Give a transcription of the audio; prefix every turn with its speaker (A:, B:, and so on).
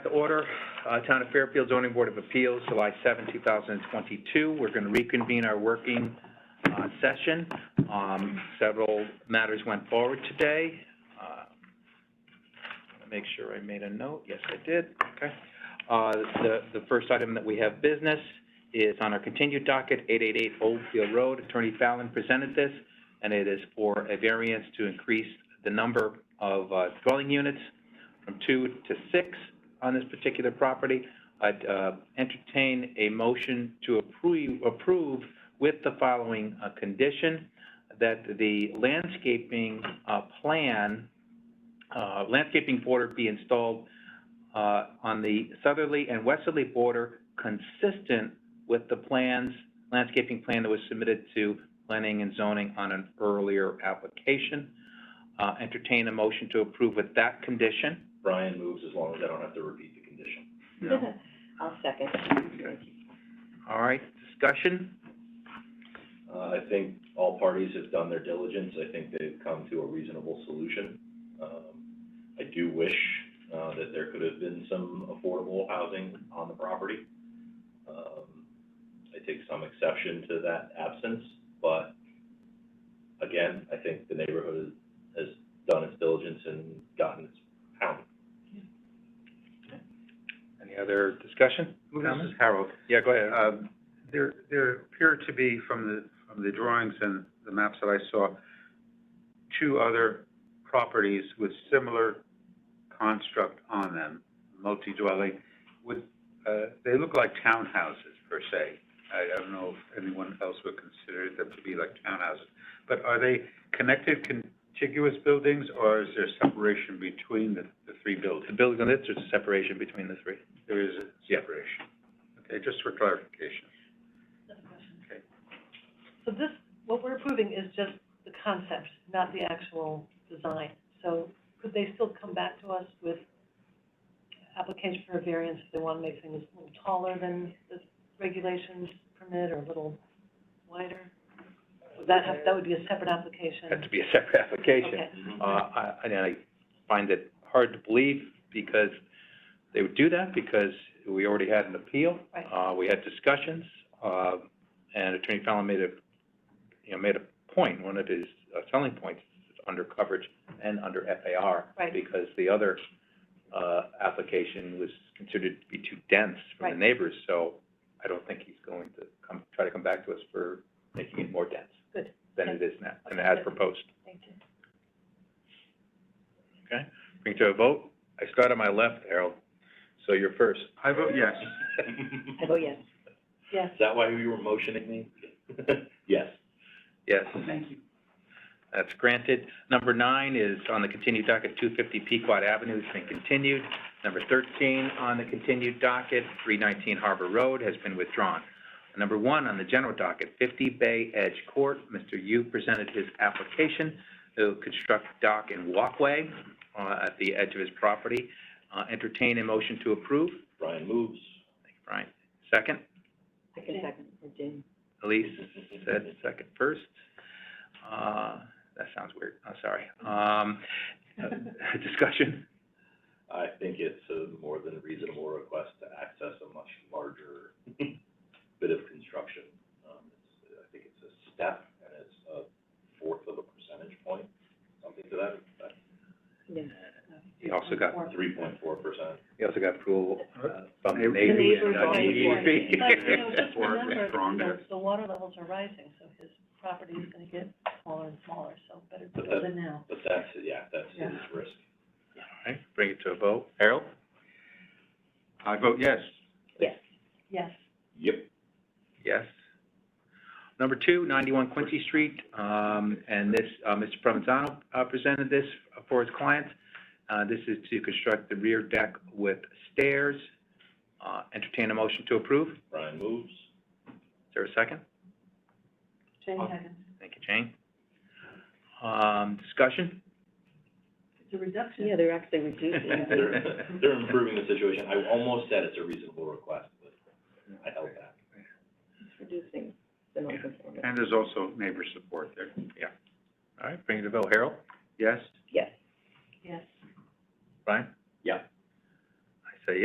A: order. Uh, Town of Fairfield Zoning Board of Appeals, July 7, 2022. We're going to reconvene our working uh, session. Um, Several matters went forward today. Uh, wanna Make sure I made a note. Yes, I did. Okay. Uh, The the first item that we have business is on our continued docket, 888 Oldfield Road. Attorney Fallon presented this, and it is for a variance to increase the number of uh, dwelling units from two to six on this particular property. I'd uh, entertain a motion to approve, approve with the following uh, condition, that the landscaping uh, plan, uh, landscaping border be installed uh, on the southerly and westerly border consistent with the plans, landscaping plan that was submitted to planning and zoning on an earlier application. Uh, Entertain a motion to approve with that condition.
B: Brian moves as long as I don't have to repeat the condition.
A: No.
C: I'll second.
A: All right, discussion?
B: Uh, I think all parties have done their diligence, I think they've come to a reasonable solution. Um, I do wish, uh, that there could have been some affordable housing on the property. Um, I take some exception to that absence, but again, I think the neighborhood has done its diligence and gotten its pound.
A: Any other discussion?
D: This
A: Comments?
D: is Harold.
A: Yeah, go ahead.
D: Um, There, there appear to be, from the, from the drawings and the maps that I saw, two other properties with similar construct on them, multi-dwelling, with, uh, they look like townhouses per se. I I don't know if anyone else would consider them to be like townhouses. But are they connected contiguous buildings, or is there separation between the, the three
A: Uh, The
D: buildings?
A: building on this, there's a separation between the three.
D: There is a separation. Okay, just for clarification.
E: So this, what we're approving is just the concept, not the actual design. So could they still come back to us with application for a variance if they want to make things a little taller than the regulations permit or a little wider? Would that have, that would be a separate
A: Had
E: application?
A: to be a separate application.
E: Okay,
A: Uh,
E: Mm-hmm.
A: I, and I find it hard to believe because they would do that because we already had an appeal.
E: Right.
A: Uh, we had discussions, uh, and Attorney Fallon made a, you know, made a point, one of his uh, selling points is under coverage and under FAR.
E: Right.
A: Because the other, uh, application was considered to be too dense for the
E: Right.
A: neighbors, so I don't think he's going to come, try to come back to us for making it more dense.
E: Good.
A: Than it is now, than it has proposed.
E: thank you.
A: Okay, bring to a vote. I start on my left, Harold, so you're first.
D: I vote yes.
C: I vote yes.
E: Yes,
B: Is that why you were motioning me? Yes.
A: Yes. Thank you. That's granted. Number nine is on the continued docket, two fifty Pequot Avenue has been continued. Number thirteen on the continued docket, three nineteen Harbor Road has been withdrawn. Number one on the general docket, fifty Bay Edge Court, Mr. Yu presented his application to construct dock and walkway, uh, at the edge of his property. Uh, entertain a motion to approve.
B: Brian moves.
A: Thank you, Brian. Second?
C: I can second, or Jane.
A: Elise said second first. Uh, that sounds weird, I'm sorry. Um, uh, discussion,
B: I think it's a more than reasonable request to access a much larger bit of construction. Um, it's- I think it's a step and it's a fourth of a percentage point, something to that, effect.
C: Yes.
A: he also got,
B: three point four percent.
A: he also got approval, uh, from the
D: The
A: Navy
C: neighbors
A: and, uh,
C: are
A: DEP.
E: but, you know, just
D: Or
E: remember,
D: it's wrong
E: that
D: there.
E: the, the water levels are rising, so his property is going to get smaller and smaller, so better to
B: But
E: build
B: that-
E: it now.
B: But that's, yeah, that's his risk.
A: All right, bring it to a vote. Harold?
D: I vote yes.
C: Yes.
E: Yes.
B: Yep.
A: Yes. Number two, 91 Quincy Street, um, and this, uh, Mr. Provenzano uh, presented this for his client. Uh, This is to construct the rear deck with stairs. Uh, Entertain a motion to approve. Is
B: Brian moves.
A: there a second?
E: Jane
B: Uh,
A: Okay.
E: Higgins.
A: Thank you, Jane. Um, discussion?
E: It's a reduction.
C: Yeah, they're actually reducing it.
B: They're, they're improving the situation. I almost said it's a reasonable request, but I held back.
C: It's reducing the non-conformity.
D: And there's also neighbor support there.
A: All right, bring it to vote. Harold?
D: Yes?
C: Yes.
E: Yes.
A: Brian?
B: Yeah.